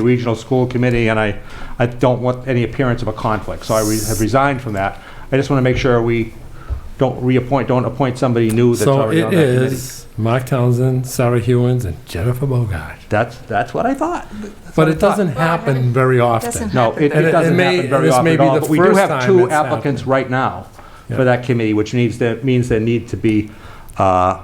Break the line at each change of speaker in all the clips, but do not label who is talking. the Regional School Committee, and I, I don't want any appearance of a conflict, so I re- have resigned from that. I just want to make sure we don't reappoint, don't appoint somebody new that's
So
already on
it
that committee.
is Mark Townsend, Sarah Hewens, and Jennifer Bogart.
That's, that's what I thought. That's what
But
I
it
thought.
doesn't happen very
doesn't
often.
No, it it
And it- it
doesn't
may-
happen very
this
often
may
at
be
all,
the
but we do
first
have
time
two
it's
applicants right now
Yeah.
for that committee, which needs, that means there need to be, uh,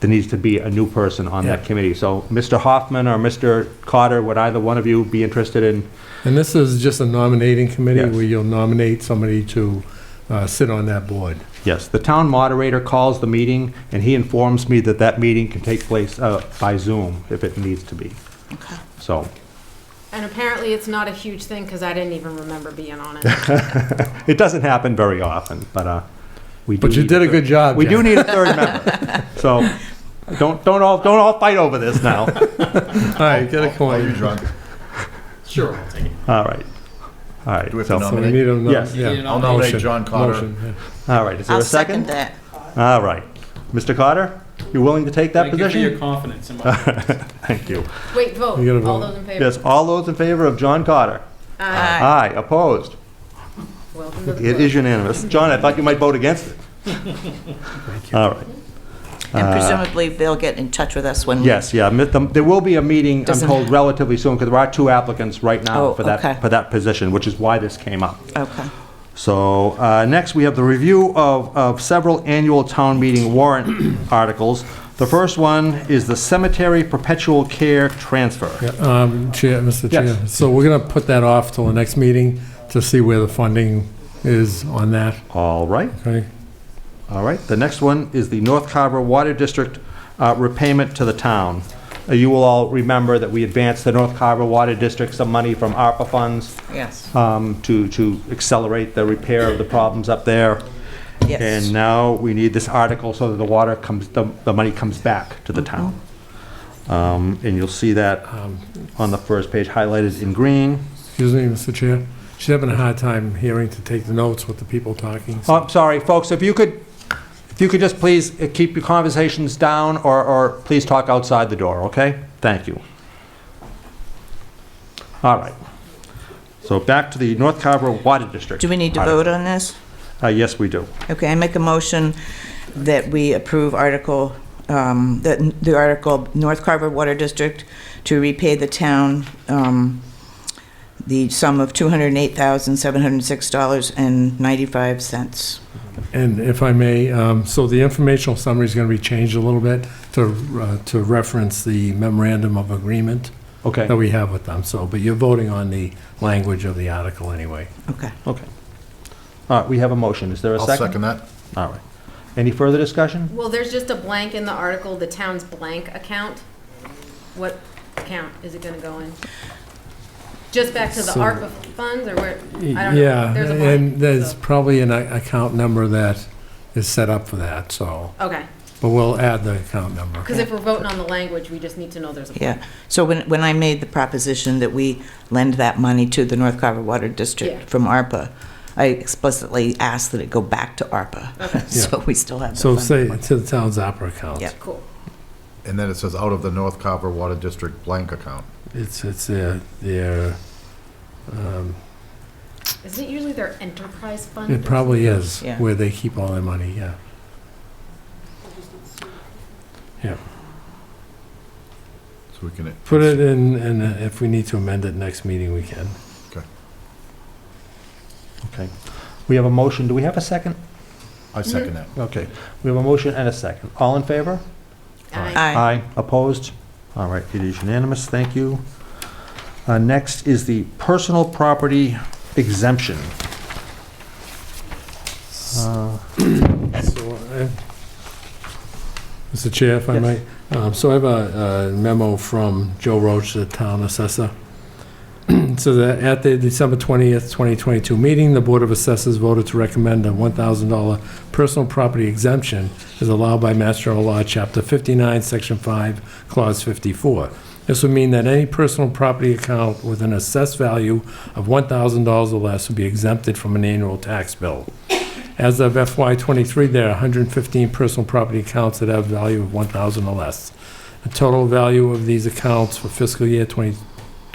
there needs to be a new person on that
Yeah.
committee. So Mr. Hoffman or Mr. Cotter, would either one of you be interested in?
And this is just a nominating committee
Yes.
where you'll nominate somebody to uh, sit on that board.
Yes, the town moderator calls the meeting, and he informs me that that meeting can take place uh, by Zoom if it needs to be.
Okay.
So,
And apparently it's not a huge thing because I didn't even remember being on it.
it doesn't happen very often, but uh, we do.
But you
need
did a
third-
good job,
We do
Jen.
need a third member. So, don't, don't all, don't all fight over this now.
All right, get a
Are you
coin.
drunk?
Sure, I'll take it.
All right. All right.
Do we have
so-
to
So we
nominate?
need a nom-
Yes.
yeah,
I'll
nominate
motion,
John Cotter.
motion, yeah.
All right, is there
I'll
a second?
second that.
All right. Mr. Cotter, you willing to take that
Thank you for your
position?
confidence in my.
Thank you.
Wait, vote.
You gotta
All
vote.
those in favor?
Yes, all those in favor of John Cotter?
Aye.
Aye.
Aye, opposed?
Welcome to the
It
club.
is unanimous. John, I thought you might vote against it. All right.
And presumably, they'll get in touch with us when we...
Uh, Yes, yeah, mi- the- there will be a meeting, I'm
Doesn't-
told relatively soon, because there are two applicants right now
Oh,
for
okay.
that, for that position, which is why this came up.
Okay.
So uh, next, we have the review of, of several annual town meeting warrant articles. The first one is the cemetery perpetual care transfer.
Um, Chair, Mr.
Yes.
Chair, so we're gonna put that off till the next meeting to see where the funding is on that,
All right,
okay?
all right. The next one is the North Carver Water District uh, repayment to the town. Uh, You will all remember that we advanced the North Carver Water District some money from ARPA funds
Yes.
um, to, to accelerate the repair of the problems up there.
Yes.
And now we need this article so that the water comes, the, the money comes back to the town. Um, and you'll see that um, on the first page highlighted in green.
Excuse me, Mr. Chair, she's having a hard time hearing to take the notes with the people talking. so-
Oh, I'm sorry, folks, if you could, if you could just please uh, keep your conversations down or, or please talk outside the door, okay? Thank you. All right. So back to the North Carver Water District.
Do we need to
article.
vote on this?
Uh, yes, we do.
Okay, I make a motion that we approve Article, um, that n- the article, North Carver Water District to repay the town um, the sum of $208,706.95.
And if I may, um, so the informational summary is going to be changed a little bit to, uh, to reference the memorandum of agreement
Okay,
that we have with them, so, but you're voting on the language of the article anyway.
Okay.
okay. All right, we have a motion. Is there a
I'll
second?
second that.
All right. Any further discussion?
Well, there's just a blank in the article, the town's blank account. What account is it gonna go in? Just back to the
So-
ARPA funds or where? I don't know.
Yeah,
There's a blank,
and there's
so-
probably an a- account number that is set up for that, so,
Okay,
but we'll add the account number.
because if we're voting on the language, we just need to know there's a.
Yeah, so when, when I made the proposition that we lend that money to the North Carver Water
Yeah.
District from ARPA, I explicitly asked that it go back to ARPA, so we still have the
So
fund.
say, to the town's opera account.
Yeah.
Cool.
And then it says out of the North Carver Water District blank account.
It's, it's their, their, um,
Isn't it usually their enterprise fund? or
it probably is,
Yeah.
where they keep all their money, yeah.
So we can.
Put it in, and uh, if we need to amend it next meeting, we can.
Okay. We have a motion. Do we have a second?
I second that.
Okay. We have a motion and a second. All in favor?
something? Aye.
Aye.
Opposed? All right, it is unanimous. Thank you. Uh, Next is the personal property exemption. Uh,
So, I- Mr. Chair, if I
Yes.
might, um, so I have a a memo from Joe Roach, the town assessor. So that at the December 20th, 2022 meeting, the Board of Assessors voted to recommend a $1,000 personal property exemption as allowed by Mass General Law, Chapter 59, Section 5, Clause 54. This would mean that any personal property account with an assessed value of $1,000 or less would be exempted from an annual tax bill. As of FY '23, there are 115 personal property accounts that have value of 1,000 or less. The total value of these accounts for fiscal year 20